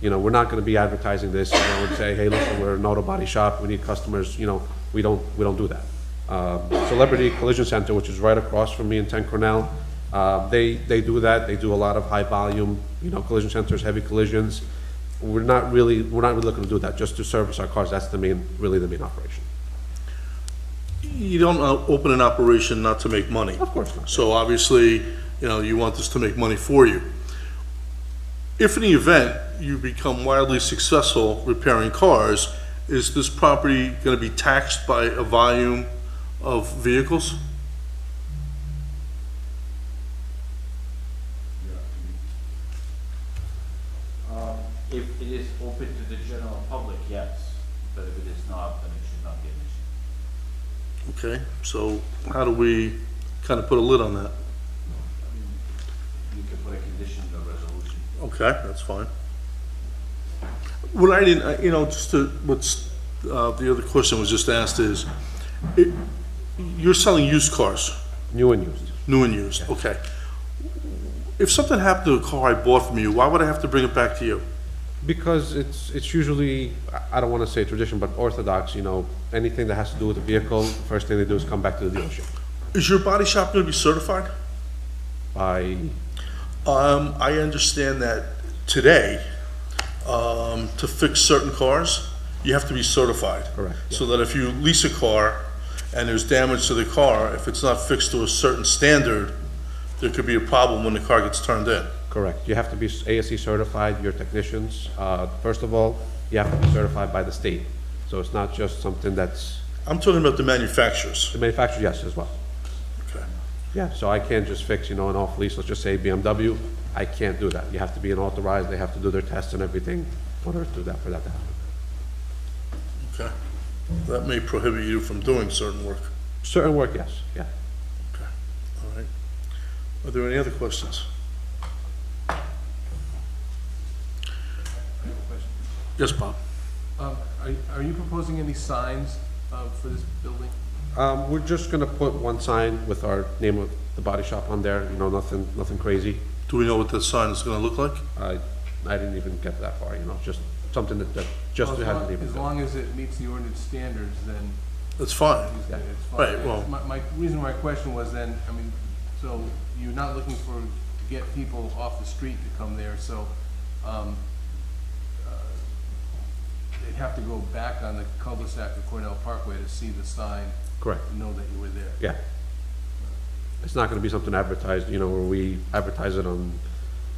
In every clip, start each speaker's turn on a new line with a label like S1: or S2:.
S1: You know, we're not gonna be advertising this, you know, and say, hey, listen, we're an auto body shop, we need customers, you know, we don't, we don't do that. Um, Celebrity Collision Center, which is right across from me in Ten Cornell, uh, they, they do that, they do a lot of high volume, you know, collision centers, heavy collisions. We're not really, we're not really looking to do that, just to service our cars, that's the main, really the main operation.
S2: You don't uh, open an operation not to make money.
S1: Of course not.
S2: So obviously, you know, you want this to make money for you. If in the event you become wildly successful repairing cars, is this property going to be taxed by a volume of vehicles?
S3: Um, If it is open to the general public, yes, but if it is not, then it should not be an issue.
S2: Okay, so how do we kind of put a lid on that?
S3: You can put a condition in the resolution.
S2: Okay, that's fine. What I didn't, I- you know, just to, what's, uh, the other question was just asked is, it- you're selling used cars,
S1: New and used.
S2: new and used, okay. If something happened to a car I bought from you, why would I have to bring it back to you?
S1: Because it's, it's usually, I- I don't want to say tradition, but orthodox, you know, anything that has to do with the vehicle, first thing they do is come back to the dealership.
S2: Is your body shop gonna be certified?
S1: I,
S2: Um, I understand that today, um, to fix certain cars, you have to be certified.
S1: Correct, yeah.
S2: So that if you lease a car and there's damage to the car, if it's not fixed to a certain standard, there could be a problem when the car gets turned in.
S1: correct, you have to be ASE certified, your technicians, uh, first of all, you have to be certified by the state. So it's not just something that's,
S2: I'm talking about the manufacturers.
S1: the manufacturer, yes, as well.
S2: Okay.
S1: Yeah, so I can't just fix, you know, an off-lease, let's just say BMW, I can't do that. You have to be an authorized, they have to do their tests and everything in order to do that, for that to happen.
S2: Okay. That may prohibit you from doing certain work.
S1: Certain work, yes, yeah.
S2: All right. Are there any other questions? Yes, Bob?
S4: Um, Are are you proposing any signs uh, for this building?
S1: Um, we're just gonna put one sign with our name of the body shop on there, you know, nothing, nothing crazy.
S2: Do we know what that sign is gonna look like?
S1: I, I didn't even get that far, you know, just something that, that, just
S4: As
S1: to have the
S4: long-
S1: name. of
S4: as
S1: the-
S4: long as it meets the ordinance standards, then
S2: That's fine.
S4: it's
S1: Yeah.
S4: it's fine.
S2: Right, well-
S4: My, my, reason my question was then, I mean, so you're not looking for, to get people off the street to come there, so, um, uh, they'd have to go back on the cul-de-sac of Cornell Parkway to see the sign,
S1: Correct,
S4: and know that you were there.
S1: yeah. It's not gonna be something advertised, you know, where we advertise it on,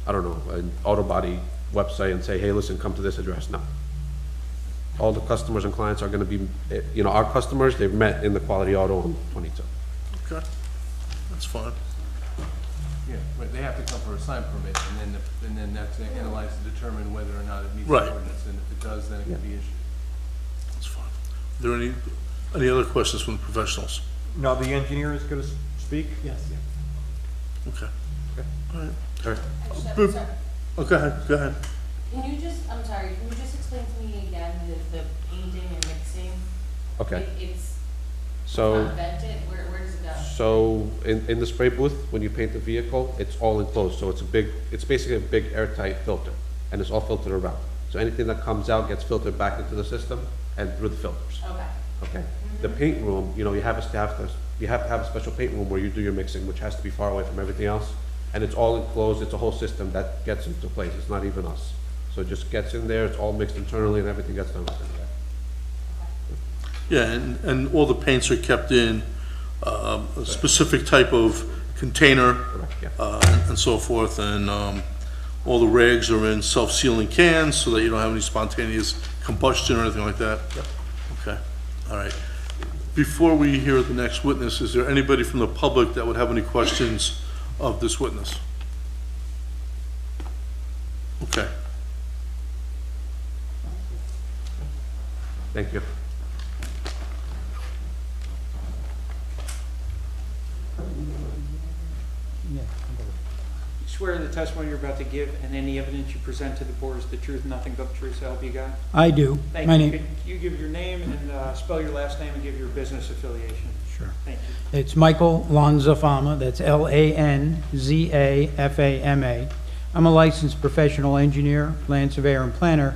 S1: I don't know, an auto body website and say, hey, listen, come to this address, no. All the customers and clients are gonna be, eh, you know, our customers, they've met in the Quality Auto on twenty-two.
S2: Okay, that's fine.
S4: Yeah, but they have to come for a sign permit, and then, the- and then that's analyzed to determine whether or not it meets
S2: Right.
S4: the ordinance, and if it does, then it can be issued.
S2: That's fine. Are there any, any other questions from the professionals?
S5: Now, the engineer is going to speak? Yes.
S2: Okay. All right.
S1: All right.
S2: Boop.
S6: Sorry, sorry.
S2: Oh, go ahead, go ahead.
S6: Can you just, I'm sorry, can you just explain to me again the, the painting and mixing?
S1: Okay,
S6: It- It's
S1: so.
S6: not vented, where, where does it go?
S1: So in, in the spray booth, when you paint the vehicle, it's all enclosed, so it's a big, it's basically a big airtight filter, and it's all filtered around. So anything that comes out gets filtered back into the system and through the filters,
S6: Okay,
S1: okay? The paint room, you know, you have a staff, that's- you have to have a special paint room where you do your mixing, which has to be far away from everything else. And it's all enclosed, it's a whole system that gets into place, it's not even us. So it just gets in there, it's all mixed internally and everything gets done within there.
S2: Yeah, and, and all the paints are kept in, um, a specific type of container,
S1: Correct, yeah.
S2: uh, and so forth, and, um, all the rags are in self-sealing cans so that you don't have any spontaneous combustion or anything like that? Okay, all right. Before we hear the next witness, is there anybody from the public that would have any questions of this witness? Okay,
S1: Thank you.
S7: Swear the testimony you're about to give and any evidence you present to the board is the truth, nothing but the truth, so help you God.
S8: I do.
S7: Thank
S8: My
S7: you.
S8: name,
S7: Could You give your name and uh, spell your last name and give your business affiliation.
S8: Sure.
S7: Thank you.
S8: it's Michael Lanzafama, that's L-A-N-Z-A-F-A-M-A. I'm a licensed professional engineer, land surveyor, and planner,